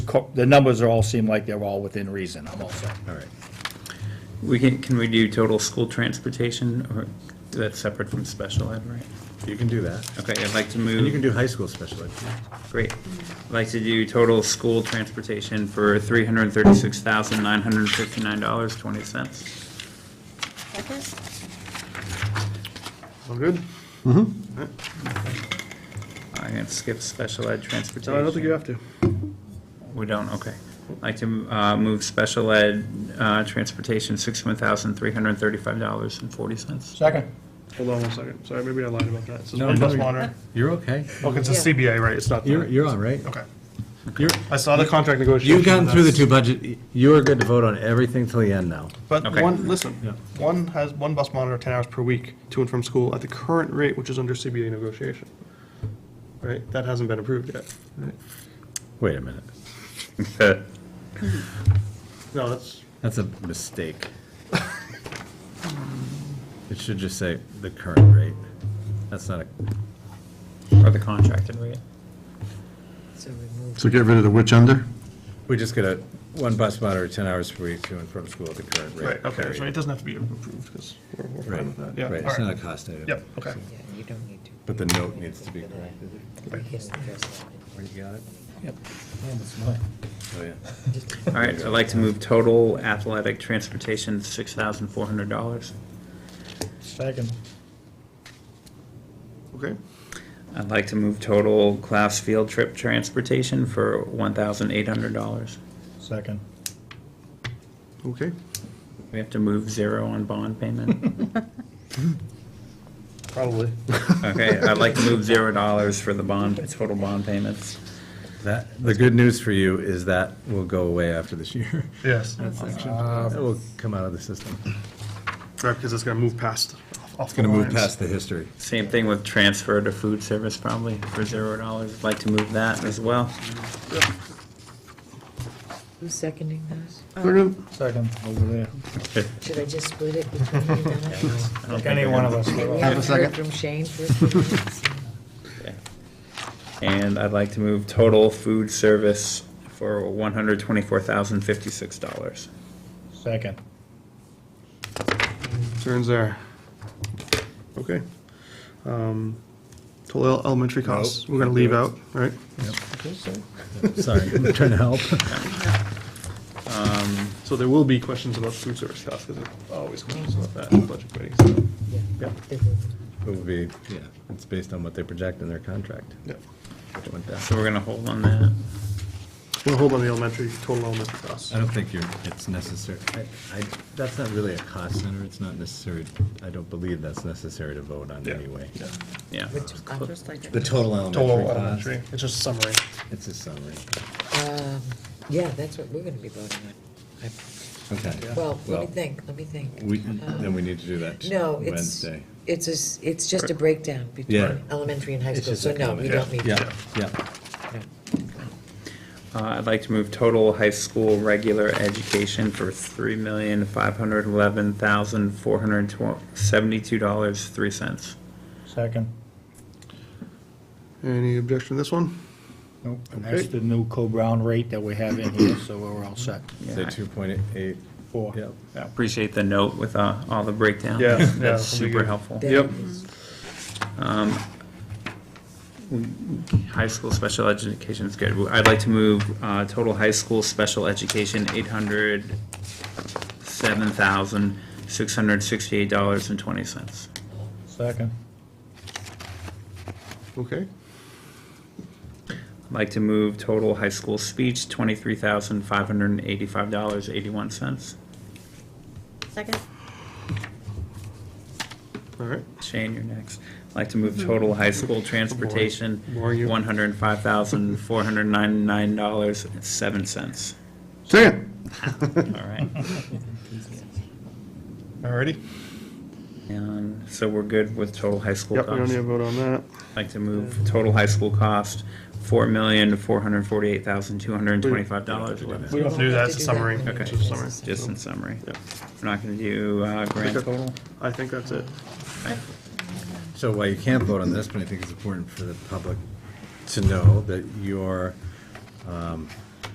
co- the numbers are all seem like they're all within reason, I'm all set. All right. We can, can we do total school transportation or that's separate from special ed, right? You can do that. Okay, I'd like to And you can move, do high school special ed. great. I'd like to do total school transportation for three hundred and thirty-six thousand, nine hundred and fifty-nine dollars, twenty cents. Second? All good? I can skip special ed transportation. No, I don't think you have to. We don't, okay. I'd like to uh, move special ed uh, transportation, sixty-one thousand, three hundred and thirty-five dollars and forty cents. Second. Hold on one second. Sorry, maybe I lied about that. It says No, one bus no. monitor. You're okay. Okay, it's a Yeah. CBA, right? It's not. the- You're, you're all right. Okay. You're, I saw the contract negotiation. you've gotten through the two that's- budget, you are good to vote on everything till the end now. But Okay. one, listen, Yeah. one has, one bus monitor, ten hours per week to and from school at the current rate, which is under CBA negotiation. Right? That hasn't been approved yet. right? Wait a minute. No, that's, That's a mistake. It should just say the current rate. That's not a, Or the contracted rate. So remove. So get rid of the which under? we just get a one bus monitor, 10 hours per week to and from school at the current rate. right, okay, period. so it doesn't have to be approved, because we're, we're fine with that, yeah. Right, all it's right. not a cost item. Yep, okay. Yeah, you don't need to. But the note needs to be corrected. We can address Where you got it? Oh, Yep. All right, I'd like to move total athletic transportation, six thousand, four hundred dollars. Second. Okay, I'd like to move total class field trip transportation for one thousand, eight hundred dollars. Second. okay. We have to move zero on bond payment. Probably. Okay, I'd like to move zero dollars for the bond, total bond payments. That, the good news for you is that will go away after this year. Yes. That will come out of the system. Right, because it's gonna move past, off- off It's the going to move lines. past the history. Same thing with transfer to food service probably for zero dollars. I'd like to move that as well. Who's seconding those? Second. Second, over there. Uh, Should I just split it between you guys? I don't think Any they're one of gonna- us. We Second. haven't heard from Shane for a few minutes. And I'd like to move total food service for one hundred twenty-four thousand, fifty-six dollars. Second. Turns there. Okay. Um, Total el- elementary costs, we're gonna leave out, right? Sorry, I'm trying to help. So there will be questions about food service costs, because there's always questions about that in budget committee, so, Yeah. yeah, It will be, yeah, it's based on what they project in their contract. yeah. Something like that. So we're gonna hold on that. We'll hold on the elementary, total elementary costs. I don't think you're, it's necessary, I, I, that's not really a cost center, it's not necessary, I don't believe that's necessary to vote on Yeah. anyway. Yeah. Yeah. Which, I'm just The total elementary Total cost, elementary, it's just a summary. it's a summary. um, yeah, that's what we're gonna be voting on. Okay. I- Well, let Well, me think, let me think. Um, we, then we need to do that No, it's, Wednesday. it's, a s- it's just a breakdown Yeah. between elementary and high It's school, just so a no, we comment. don't need to. Yeah, yeah, No. Uh, I'd like to move total high school regular education for three million, five hundred eleven thousand, four hundred seventy-two dollars, three cents. Second. Any objection to this one? Nope, and that's the new co-brown rate that we have in here, so we're all set. say two point eight, Four. yep. Appreciate the note with uh, all the breakdown. Yeah, yeah, that'll be That's super good. helpful. That Yep. is- Um, High school special education is good. I'd like to move uh, total high school special education, eight hundred seven thousand, six hundred sixty-eight dollars and twenty cents. Second. Okay, I'd like to move total high school speech, twenty-three thousand, five hundred and eighty-five dollars, eighty-one cents. Second? all right. Shane, you're next. I'd like to move total high school transportation, Boring you. one hundred and five thousand, four hundred and ninety-nine dollars, seven cents. Second. All right. All righty. And so we're good with total high school Yep, we don't cost. need a vote on that. I'd like to move total high school cost, four million, four hundred forty-eight thousand, two hundred and twenty-five dollars. We don't have to do that, it's a summary. Okay. It's just a summary. Just in summary. Yep. We're not gonna do, uh, grand Okay. total. I think that's it. So while you can't vote on this, but I think it's important for the public to know that your um,